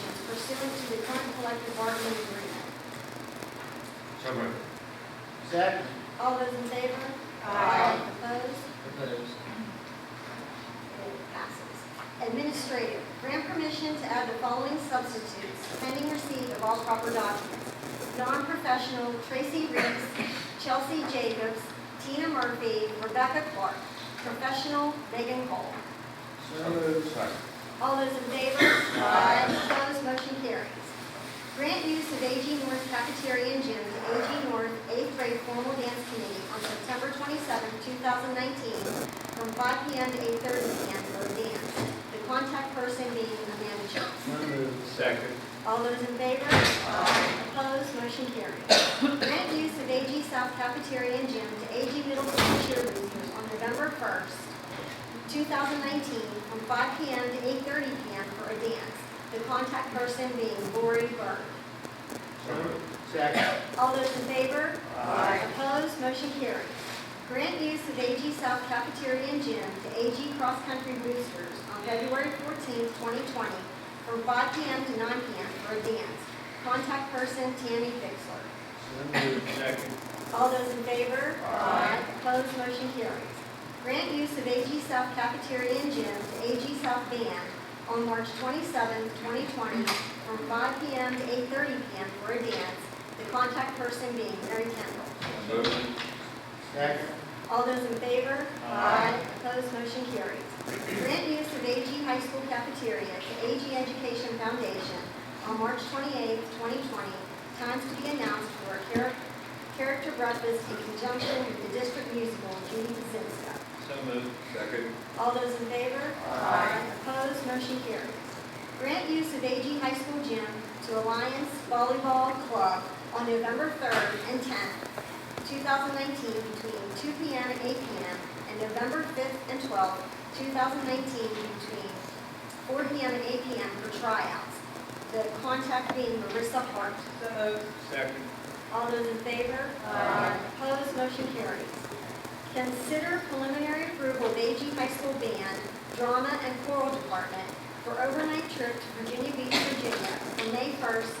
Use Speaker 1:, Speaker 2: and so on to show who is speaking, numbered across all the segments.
Speaker 1: pursuant to the current collective bargaining agreement.
Speaker 2: So moved.
Speaker 3: Second.
Speaker 1: All those in favor?
Speaker 3: Aye.
Speaker 1: Opposed?
Speaker 3: Opposed.
Speaker 1: It passes. Administrative, grant permission to add the following substitutes pending receipt of all proper documents. Non-professional Tracy Reeves, Chelsea Jacobs, Tina Murphy, Rebecca Clark. Professional Megan Cole.
Speaker 3: So moved.
Speaker 2: Second.
Speaker 1: All those in favor? Opposed, motion carries. Grant use of AG North Cafeteria and Gym to AG North Eighth Grade Formal Dance Committee on September 27, 2019, from 5 p.m. to 8:30 p.m. for a dance. The contact person being Amanda Jones.
Speaker 3: So moved.
Speaker 2: Second.
Speaker 1: All those in favor? Opposed, motion carries. Grant use of AG South Cafeteria and Gym to AG Middle School cheerleaders on November 1st, 2019, from 5 p.m. to 8:30 p.m. for a dance. The contact person being Lori Bird.
Speaker 2: So moved.
Speaker 3: Second.
Speaker 1: All those in favor?
Speaker 3: Aye.
Speaker 1: Opposed, motion carries. Grant use of AG South Cafeteria and Gym to AG Cross Country Boosters on February 14, 2020, from 5 p.m. to 9 p.m. for a dance. Contact person Tammy Fixler.
Speaker 3: So moved.
Speaker 2: Second.
Speaker 1: All those in favor? Aye. Opposed, motion carries. Grant use of AG South Cafeteria and Gym to AG South Band on March 27, 2020, from 5 p.m. to 8:30 p.m. for a dance, the contact person being Mary Kendall.
Speaker 2: So moved.
Speaker 3: Second.
Speaker 1: All those in favor?
Speaker 3: Aye.
Speaker 1: Opposed, motion carries. Grant use of AG High School cafeteria to AG Education Foundation on March 28, 2020, times to be announced for a char- character breakfast in conjunction with the district musical Judy Kazinska.
Speaker 2: So moved. Second.
Speaker 1: All those in favor?
Speaker 3: Aye.
Speaker 1: Opposed, motion carries. Grant use of AG High School gym to Alliance Volleyball Club on November 3rd and 10th, 2019, between 2 PM and 8 PM, and November 5th and 12th, 2019, between 4 PM and 8 PM for tryouts. The contact being Marissa Hart.
Speaker 2: Second.
Speaker 1: All those in favor? Aye. Opposed, motion carries. Consider preliminary approval of AG High School Band, Drama and Choral Department for overnight trip to Virginia Beach, Virginia from May 1st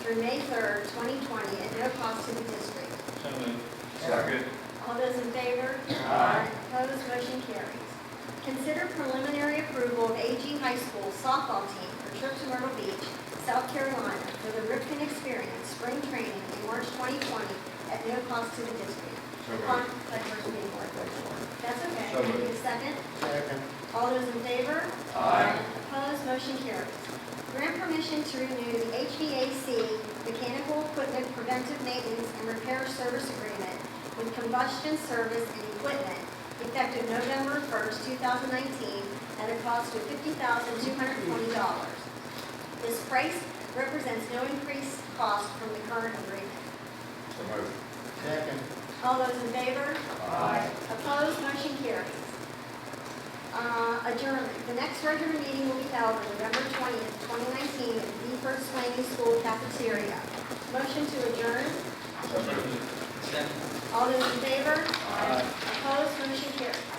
Speaker 1: through May 3rd, 2020, at no cost to the district.
Speaker 2: So moved. Second.
Speaker 1: All those in favor?
Speaker 3: Aye.
Speaker 1: Opposed, motion carries. Consider preliminary approval of AG High School softball team for trip to Myrtle Beach, South Carolina for the Ripken Experience Spring Training in March 2020 at no cost to the district.
Speaker 2: So moved.
Speaker 1: Contact person being Mark Whitmore. That's okay.
Speaker 2: So moved.
Speaker 1: Need a second?
Speaker 3: Second.
Speaker 1: All those in favor?
Speaker 2: Aye.
Speaker 1: Opposed, motion carries. Grant permission to renew the HVAC Mechanical Equipment Preventive Maintenance and Repair Service Agreement with Combustion Service and Equipment effective November 1st, 2019, at a cost of $50,220. This price represents no increased cost from the current agreement.
Speaker 2: So moved.
Speaker 3: Second.
Speaker 1: All those in favor?
Speaker 3: Aye.
Speaker 1: Opposed, motion carries. Uh, Adjournment. The next regular meeting will be held on November 20th, 2019, at the First Swaney School Cafeteria. Motion to adjourn.
Speaker 2: So moved.
Speaker 3: Second.
Speaker 1: All those in favor?
Speaker 3: Aye.
Speaker 1: Opposed, motion carries.